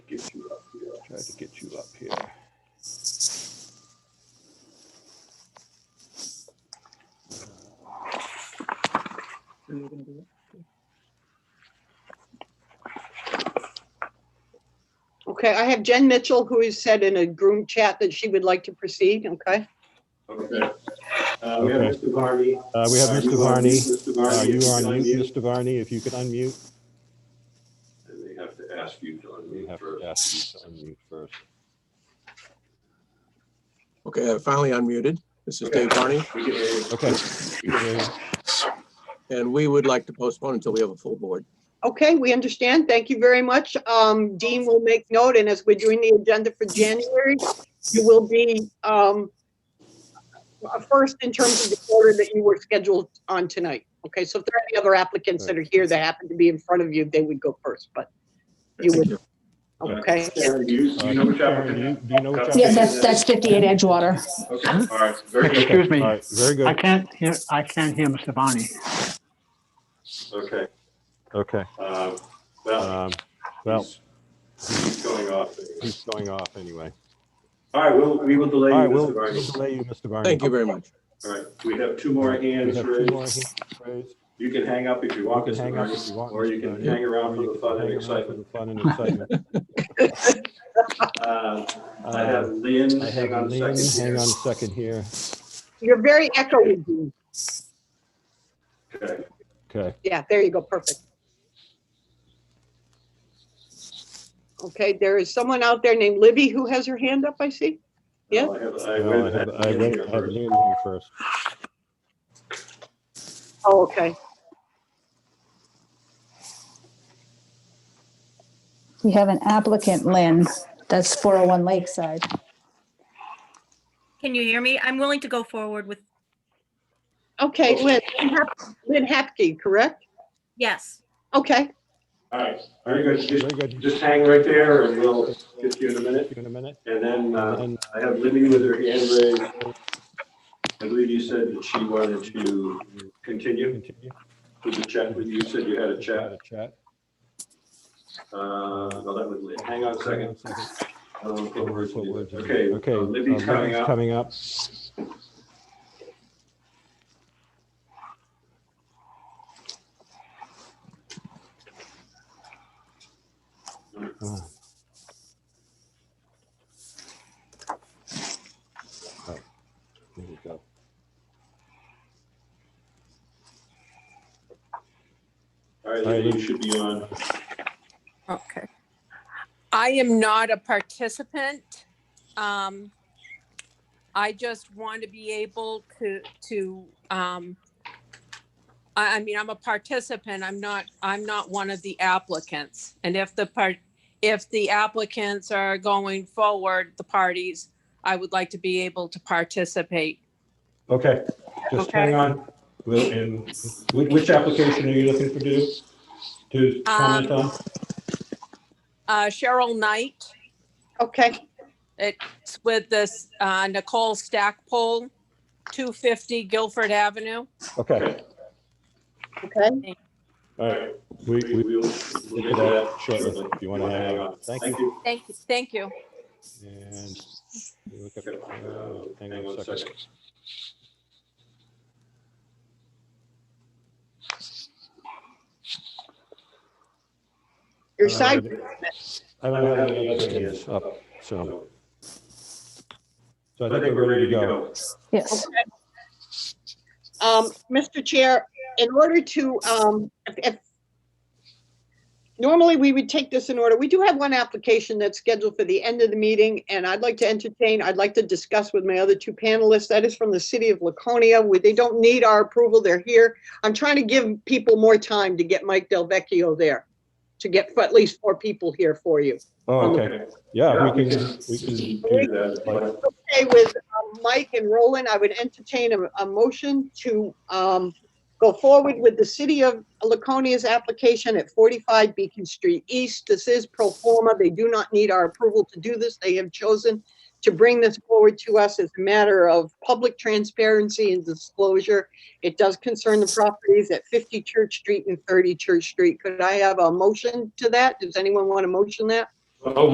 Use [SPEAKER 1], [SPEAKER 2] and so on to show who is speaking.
[SPEAKER 1] get you up here. I'll try to get you up here.
[SPEAKER 2] Are you gonna do it?
[SPEAKER 3] Okay, I have Jen Mitchell, who has said in a group chat that she would like to proceed, okay?
[SPEAKER 1] Okay. Uh, we have
[SPEAKER 4] Okay.
[SPEAKER 1] Mr. Varney.
[SPEAKER 4] Uh, we have
[SPEAKER 1] Are
[SPEAKER 4] Mr.
[SPEAKER 1] you on mute,
[SPEAKER 4] Varney.
[SPEAKER 1] Mr.
[SPEAKER 4] Uh,
[SPEAKER 1] Varney,
[SPEAKER 4] You
[SPEAKER 1] if
[SPEAKER 4] are on
[SPEAKER 1] can
[SPEAKER 4] mute,
[SPEAKER 1] unmute.
[SPEAKER 4] Mr. Varney, if you could unmute.
[SPEAKER 1] And they have to ask you to
[SPEAKER 4] We
[SPEAKER 1] unmute
[SPEAKER 4] have to
[SPEAKER 1] first.
[SPEAKER 4] ask you to unmute first.
[SPEAKER 5] Okay, I finally unmuted. This is
[SPEAKER 1] Okay.
[SPEAKER 5] Dave Barney,
[SPEAKER 1] We can hear you.
[SPEAKER 4] Okay.
[SPEAKER 5] and we would like to postpone until we have a full board.
[SPEAKER 3] Okay, we understand. Thank you very much. Um, Dean will make note, and as we're doing the agenda for January, you will be, um, uh, first in terms of the order that you were scheduled on tonight. Okay, so if there are any other applicants that are here that happen to be in front of you, they would go first, but you
[SPEAKER 5] Thank
[SPEAKER 3] would,
[SPEAKER 5] you.
[SPEAKER 3] okay?
[SPEAKER 1] Karen, do you, do you know which
[SPEAKER 4] Karen, do you-
[SPEAKER 1] applicant?
[SPEAKER 4] do you know which
[SPEAKER 6] Yeah,
[SPEAKER 4] applicant-
[SPEAKER 6] that's, that's 58 Edgewater.
[SPEAKER 1] Okay, all right, very good.
[SPEAKER 7] Excuse
[SPEAKER 4] All
[SPEAKER 7] me,
[SPEAKER 4] right, very
[SPEAKER 7] I
[SPEAKER 4] good.
[SPEAKER 7] can't hear, I can't hear Mr. Bonney.
[SPEAKER 1] Okay,
[SPEAKER 4] Okay.
[SPEAKER 1] uh, well,
[SPEAKER 4] Um, Well,
[SPEAKER 1] he's- he's going off.
[SPEAKER 4] he's going off anyway.
[SPEAKER 1] All right, we'll, we will delay
[SPEAKER 4] All
[SPEAKER 1] you,
[SPEAKER 4] right, we'll
[SPEAKER 1] Mr.
[SPEAKER 4] we'll
[SPEAKER 1] Varney.
[SPEAKER 4] delay you, Mr. Varney.
[SPEAKER 5] Thank you very much.
[SPEAKER 1] All right, we have two
[SPEAKER 4] We
[SPEAKER 1] more
[SPEAKER 4] have
[SPEAKER 1] hands
[SPEAKER 4] two
[SPEAKER 1] raised.
[SPEAKER 4] more hands raised.
[SPEAKER 1] You can hang up if you
[SPEAKER 4] You
[SPEAKER 1] want,
[SPEAKER 4] can
[SPEAKER 1] Mr.
[SPEAKER 4] hang up
[SPEAKER 1] Varney,
[SPEAKER 4] if you want,
[SPEAKER 1] or you
[SPEAKER 4] Mr.
[SPEAKER 1] can
[SPEAKER 4] Varney.
[SPEAKER 1] hang
[SPEAKER 4] Or
[SPEAKER 1] around
[SPEAKER 4] you
[SPEAKER 1] for the
[SPEAKER 4] can
[SPEAKER 1] fun
[SPEAKER 4] hang
[SPEAKER 1] and
[SPEAKER 4] around for
[SPEAKER 1] excitement.
[SPEAKER 4] the Fun and excitement.
[SPEAKER 1] Uh, I have
[SPEAKER 4] Uh,
[SPEAKER 1] Lynn,
[SPEAKER 4] I have
[SPEAKER 1] hang on
[SPEAKER 4] Lynn,
[SPEAKER 1] a second.
[SPEAKER 4] hang
[SPEAKER 1] here.
[SPEAKER 4] on a second here.
[SPEAKER 3] You're very echoey, Dean.
[SPEAKER 1] Okay.
[SPEAKER 4] Okay.
[SPEAKER 3] Yeah, there you go, perfect. Okay, there is someone out there named Libby who has her hand up, I see. Yeah.
[SPEAKER 1] Well, I have- I
[SPEAKER 4] Well, Oh, I
[SPEAKER 1] went
[SPEAKER 4] have
[SPEAKER 1] ahead
[SPEAKER 4] I
[SPEAKER 1] and
[SPEAKER 4] went-
[SPEAKER 1] here
[SPEAKER 4] I have
[SPEAKER 1] first.
[SPEAKER 4] Lynn here first.
[SPEAKER 3] Oh, okay.
[SPEAKER 6] We have an applicant, Lynn, that's 401 Lakeside.
[SPEAKER 8] Can you hear me? I'm willing to go forward with,
[SPEAKER 3] Okay, Lynn, Hap- Lynn Hapke, correct?
[SPEAKER 8] yes.
[SPEAKER 3] Okay,
[SPEAKER 1] All right, very good.
[SPEAKER 4] Very
[SPEAKER 1] Just,
[SPEAKER 4] good.
[SPEAKER 1] just hang right there and we'll get you in a minute.
[SPEAKER 4] See you In a minute.
[SPEAKER 1] And then, uh,
[SPEAKER 4] And
[SPEAKER 1] I have Libby with her hand raised. I believe you said that she wanted to continue
[SPEAKER 4] continue.
[SPEAKER 1] with the chat. with You You said you had a chat.
[SPEAKER 4] Chat.
[SPEAKER 1] Uh, no, that was Lynn. Hang on a second. I don't know what words
[SPEAKER 4] What
[SPEAKER 1] we
[SPEAKER 4] words
[SPEAKER 1] did.
[SPEAKER 4] are we-
[SPEAKER 1] Okay,
[SPEAKER 4] Okay.
[SPEAKER 1] uh,
[SPEAKER 4] uh,
[SPEAKER 1] Libby's coming up.
[SPEAKER 4] Coming up. Uh. Oh, There we go.
[SPEAKER 1] All right,
[SPEAKER 4] All right,
[SPEAKER 1] Libby, you
[SPEAKER 4] Libby.
[SPEAKER 1] should be on.
[SPEAKER 9] Okay. I am not a participant. Um, I just want to be able to, to, um, I, I mean, I'm a participant. I'm not, I'm not one of the applicants. And if the part, if the applicants are going forward, the parties, I would like to be able to participate.
[SPEAKER 4] Okay, just
[SPEAKER 9] Okay.
[SPEAKER 4] hang on. Will, and which, which application are you looking for to, to comment on?
[SPEAKER 9] Uh, Cheryl Knight
[SPEAKER 3] okay,
[SPEAKER 9] it's with this, uh, Nicole Stackpole, 250 Guilford Avenue.
[SPEAKER 4] Okay,
[SPEAKER 3] okay.
[SPEAKER 4] all
[SPEAKER 1] All
[SPEAKER 4] right.
[SPEAKER 1] right,
[SPEAKER 4] We,
[SPEAKER 1] we,
[SPEAKER 4] we,
[SPEAKER 1] we'll.
[SPEAKER 4] we'll get to that shortly, if you want to hang on. Thank you.
[SPEAKER 9] Thank you. Thank you.
[SPEAKER 4] And we look up-
[SPEAKER 1] Okay, uh,
[SPEAKER 4] uh, hang on a second.
[SPEAKER 3] Your side,
[SPEAKER 4] I
[SPEAKER 1] I
[SPEAKER 4] don't
[SPEAKER 1] don't
[SPEAKER 4] have
[SPEAKER 1] have any other
[SPEAKER 4] hands
[SPEAKER 1] hands
[SPEAKER 4] up, Oh, so,
[SPEAKER 1] So
[SPEAKER 4] so I think we're ready to go.
[SPEAKER 6] Yes.
[SPEAKER 3] um, Mr. Chair, in order to, um, if, if, normally we would take this in order. We do have one application that's scheduled for the end of the meeting, and I'd like to entertain, I'd like to discuss with my other two panelists. That is from the city of Laconia, where they don't need our approval, they're here. I'm trying to give people more time to get Mike Delvecchio there, to get at least four people here for you.
[SPEAKER 4] Oh, okay,
[SPEAKER 1] Okay.
[SPEAKER 4] yeah, we can, we can do
[SPEAKER 1] Do that, but-
[SPEAKER 3] Okay, with um, Mike and Roland, I would entertain a, a motion to, um, go forward with the city of Laconia's application at forty-five Beacon Street East. This is pro forma. They do not need our approval to do this. They have chosen to bring this forward to us as a matter of public transparency and disclosure. It does concern the properties at fifty Church Street and thirty Church Street. Could I have a motion to that? Does anyone want to motion that?
[SPEAKER 1] Oh,